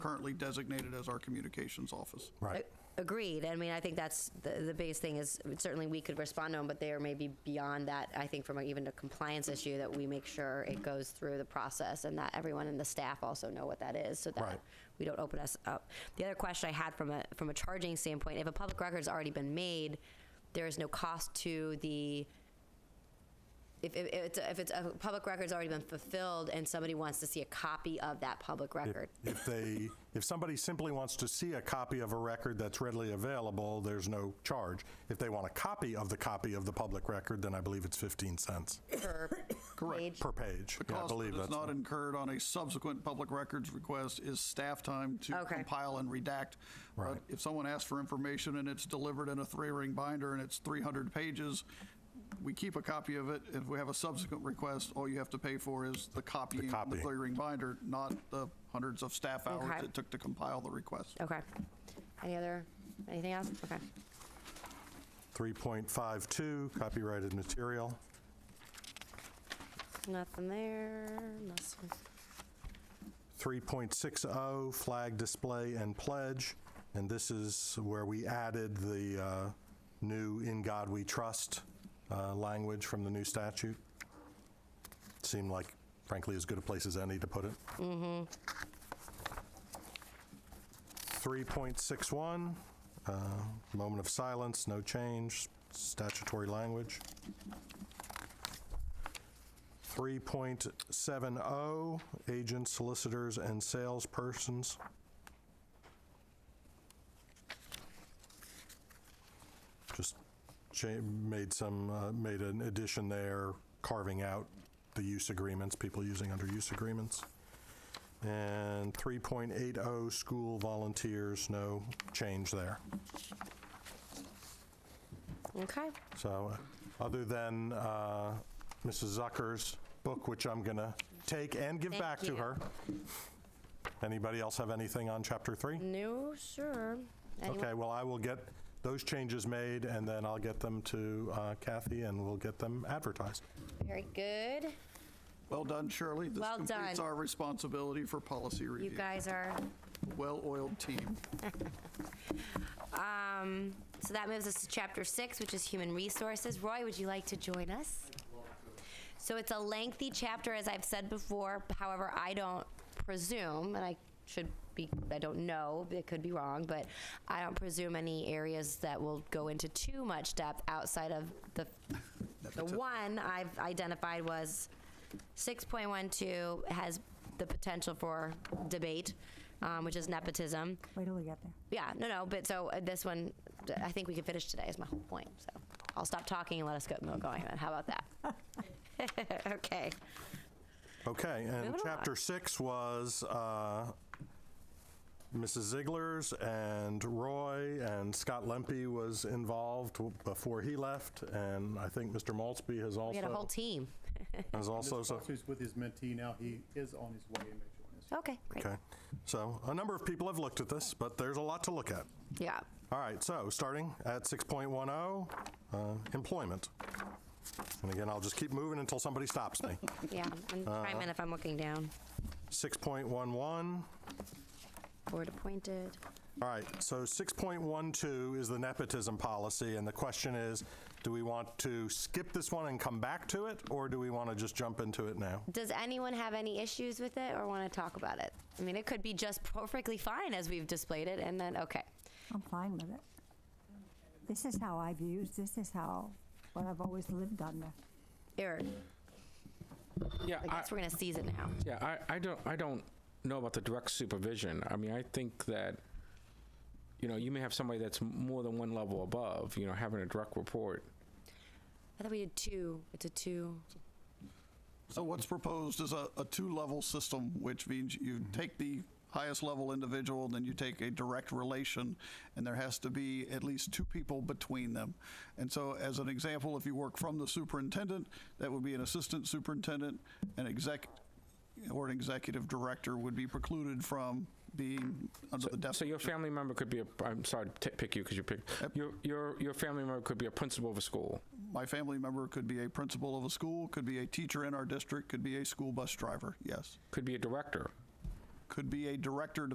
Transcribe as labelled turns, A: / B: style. A: currently designated as our communications office.
B: Right.
C: Agreed. I mean, I think that's the, the biggest thing is certainly we could respond to them, but they are maybe beyond that. I think from a, even a compliance issue that we make sure it goes through the process and that everyone in the staff also know what that is, so that
B: Right.
C: we don't open us up. The other question I had from a from a charging standpoint, if a public record's already been made, there is no cost to the if, if, if it's if it's a public record's already been fulfilled and somebody wants to see a copy of that public record,
B: If they, if somebody simply wants to see a copy of a record that's readily available, there's no charge. If they want a copy of the copy of the public record, then I believe it's 15 cents
C: per page,
B: per page.
A: The
B: Yeah, I
A: cost
B: believe
A: that is
B: that's
A: not
B: the-
A: incurred on a subsequent public records request is staff time to
C: Okay.
A: compile and redact. But
B: Right.
A: if someone asks for information and it's delivered in a three-ring binder and it's 300 pages, we keep a copy of it. If we have a subsequent request, all you have to pay for is the copying, of the
B: copy.
A: three-ring binder, not the hundreds of staff hours
C: Okay.
A: it took to compile the request.
C: Okay. Any other, anything else? Okay.
B: 3.52, copyrighted material.
C: Nothing there. nothing-
B: 3.60, oh, flag display and pledge. And this is where we added the uh, new "In God We Trust" uh, language from the new statute. Seemed like, frankly, as good a place as any to put it. Mm-hmm. 3.61, uh, moment of silence, no change, statutory language. 3.70, agents, oh, solicitors, and salespersons. 3.70, agents, solicitors, and salespersons. Just cha- made some, uh, made an addition there, carving out the use agreements, people using under use agreements. And 3.80, oh, school volunteers, no change there.
C: Okay.
B: So, uh, other than uh, Mrs. Zucker's book, which I'm going to take and give
C: Thank
B: back to
C: you.
B: her. Anybody else have anything on Chapter 3?
C: No, sure. Anyone-
B: Okay, well, I will get those changes made, and then I'll get them to uh, Kathy, and we'll get them advertised.
C: Very good.
A: Well done, Shirley.
C: Well
A: This completes
C: done.
A: our responsibility for policy
C: You
A: review.
C: guys are,
A: Well-oiled team.
C: um, so that moves us to chapter six, which is human resources. Roy, would you like to join us? So it's a lengthy chapter, as I've said before. However, I don't presume, and I should be, I don't know, it could be wrong, but I don't presume any areas that will go into too much depth outside of the, the one I've identified was 6.12 has the potential for debate, um, which is nepotism.
D: Wait till we get there.
C: Yeah, no, no, but so uh, this one, d- I think we can finish today is my whole point. So I'll stop talking and let us go, go going then. How about that? okay.
B: Okay, and
C: Moving
B: chapter
C: along.
B: six was uh, Mrs. Ziegler's and Roy and Scott Lempe was involved w- before he left, and I think Mr. Maltzby has
C: We had a whole
B: also,
C: team.
B: has also, so,
E: He's with his mentee now. He is on his way and may join us.
C: Okay, great.
B: okay. So a number of people have looked at this, but there's a lot to look at.
C: Yeah.
B: All right, so starting at 6.10, uh, employment. And again, I'll just keep moving until somebody stops me.
C: Yeah. And
B: Uh-huh.
C: chime in if I'm looking down.
B: 6.11,
C: Board appointed.
B: All right, so 6.12 is the nepotism policy, and the question is, do we want to skip this one and come back to it, or do we want to just jump into it now?
C: Does anyone have any issues with it or want to talk about it? I mean, it could be just perfectly fine as we've displayed it, and then, okay.
D: I'm fine with it. This is how I've used, this is how, what I've always lived under.
C: Eric,
F: Yeah,
C: I
F: I,
C: guess we're going to seize it now.
F: yeah, I, I don't, I don't know about the direct supervision. I mean, I think that, you know, you may have somebody that's m- more than one level above. You know, having a direct report.
C: I thought we did two. It's a two.
A: So what's proposed is a, a two-level system, which means you take the highest level individual, then you take a direct relation, and there has to be at least two people between them. And so as an example, if you work from the superintendent, that would be an assistant superintendent, an exec, or an executive director would be precluded from being under the
F: So
A: definition.
F: your family member could be a. I'm sorry to t- pick you because you pick your your your family member could be a principal of a school.
A: My family member could be a principal of a school, could be a teacher in our district, could be a school bus driver, yes.
F: Could be a director.
A: Could be a director,